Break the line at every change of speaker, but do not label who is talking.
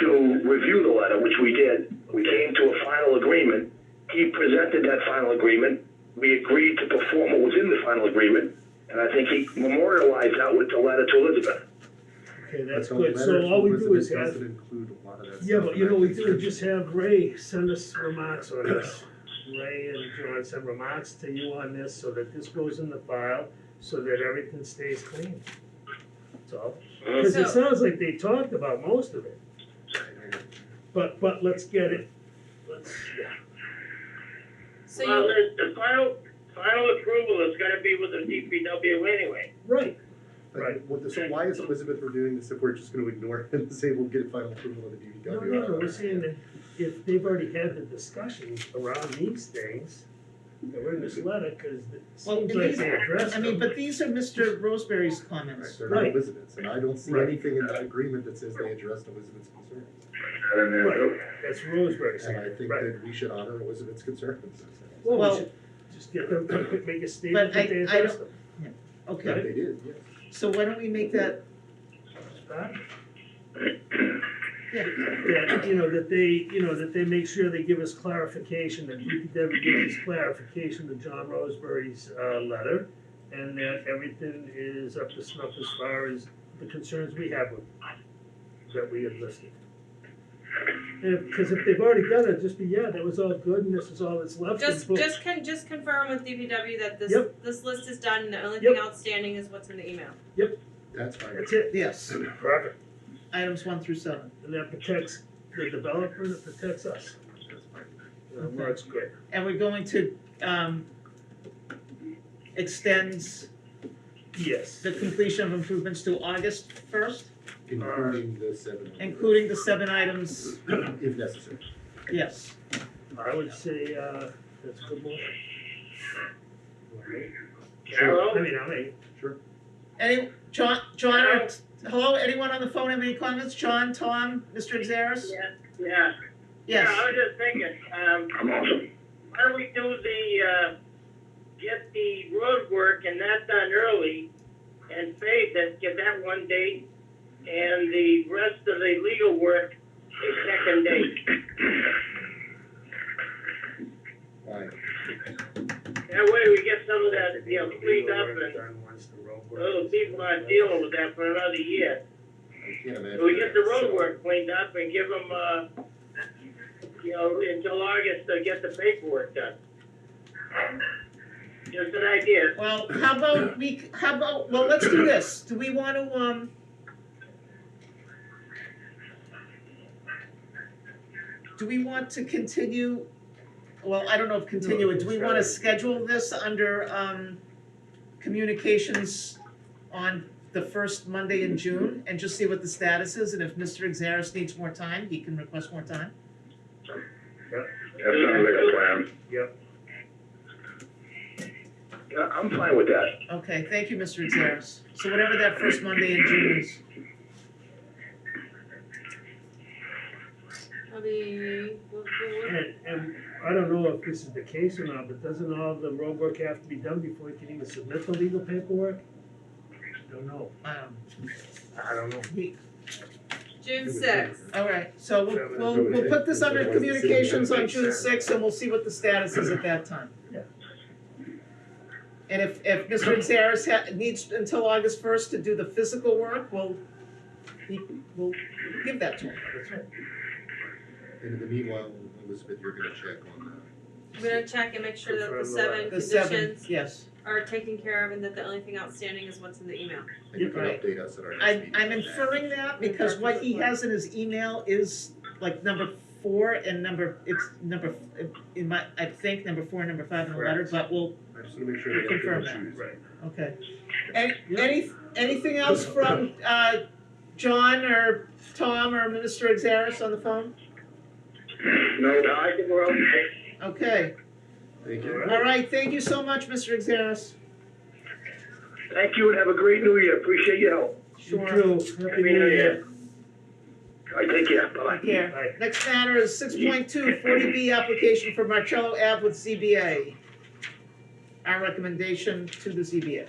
to review the letter, which we did. We came to a final agreement. He presented that final agreement. We agreed to perform what was in the final agreement, and I think he memorialized that with the letter to Elizabeth.
Okay, that's
But the
good,
letter
so
to
all we do
Elizabeth
is have,
Doesn't include a lot of that stuff.
yeah, but you know,
and I
we
think
do
that-
just have Ray send us remarks on this. Ray and John send remarks to you on this, so that this goes in the file, so that everything stays clean. That's all,
Uh-huh.
cause it
So-
sounds like they talked about most of it, but, but let's get it, let's, yeah.
So
Well,
you,
the, the final, final approval is gonna be with the DPW anyway.
Right,
Like,
Right.
what- so why is Elizabeth reviewing this if we're just gonna ignore it and say we'll get final approval of the
no,
DPW?
no, no, we're saying that if they've already had the discussion around these things, that were in this letter, cause it
Well,
seems
and
like
these-
they addressed
I mean,
them.
but these are Mr. Roseberry's comments.
They're not
Right.
Elizabeth's, and I don't see
Right.
anything in that agreement that says they addressed Elizabeth's concerns.
Right, that's Roseberry
And I
saying,
think
right.
that we should honor Elizabeth's concerns.
Well,
Well-
we should just get them, make a statement
But
that
I-
they
I
addressed them.
Okay,
They did, yes.
so why don't we make that,
Huh?
yeah,
That, you know, that they, you know, that they make sure they give us clarification, that DPW gives us clarification to John Roseberry's, uh, letter, and that everything is up to snuff as far as the concerns we have with, that we have listed. And, if- cause if they've already done it, just be, yeah, that was all good and this is all that's left. and
just,
boom.
just con, just confirm with DPW that this,
Yep.
this list is done, and the only
Yep.
thing outstanding is what's in the email.
That's fine.
That's it,
yes,
perfect,
items one through seven.
and that protects the developer, and it protects us,
That's fine.
you know, works great.
And we're going to, um, extend
Yes.
the completion of improvements to August first,
Including the seven.
including the seven items,
If necessary.
yes.
I would say, uh, that's a good one. Alright. I
Hello?
mean, I mean,
Any, John, John, or, hello, anyone on the phone have any comments? John, Tom, Mr. Exares?
Yeah, yeah. Yeah, I
Yes,
was just thinking, um,
I'm awesome.
why don't we do the, uh, get the road work and that done early and pay that, get that one date, and the rest of the legal work a second date.
Fine.
That way we get some of that, you know, cleaned up and
and
those people aren't dealing with that for another year.
I can't imagine.
We get the
that.
road work cleaned up and give them, uh, you know, until August to get the paperwork done. Just an idea.
well, how about we, c- how about, well, let's do this, do we wanna, um, do we want to continue, well, I don't know if continue, it. do we wanna schedule this under, um, communications on the first Monday in June, and just see what the status is, and if Mr. Exares needs more time, he can request more time?
That sounds like a plan.
Yeah, I'm fine with that.
Okay, thank you, Mr. Exares. So whatever that first Monday in June is,
It'll be, we'll- we'll- we'll-
And, and I don't know if this is the case or not, but doesn't all the road work have to be done before you can even submit the legal paperwork? Don't know.
um,
I don't know.
he,
June sixth.
all right, so we'll, we'll, we'll put this under communications on June sixth, and we'll see what the status is at that time.
Yeah.
And if, if Mr. Exares ha- needs until August first to do the physical work, we'll, he, we'll give that to him.
That's right.
And in the meanwhile, Elizabeth, you're gonna check on
I'm gonna check and make sure that the
Confirm the
seven
The seven,
conditions
yes.
are taken care of and that the only thing outstanding is what's in the email.
that, and you can
Right.
update us at our next
I'm,
meeting.
I'm inferring that because what he has in his email is like number four and number, it's number, in my, I think number four and number five in the letter, but we'll,
I just wanna make sure that.
Confirm that. okay. Any, any, anything else from, uh, John or Tom or Minister Exares on the phone?
No,
No, I think we're okay.
Okay,
Thank you.
all right, thank you so much, Mr. Exares.
thank you and have a great new year. Appreciate your help.
You
Sure.
too. Happy
Happy
New
New
Year.
All right, take care. Bye-bye.
Take care.
Bye.
Next matter is six point two, forty B application for Marcello Ave with ZBA. Our recommendation to the ZBA.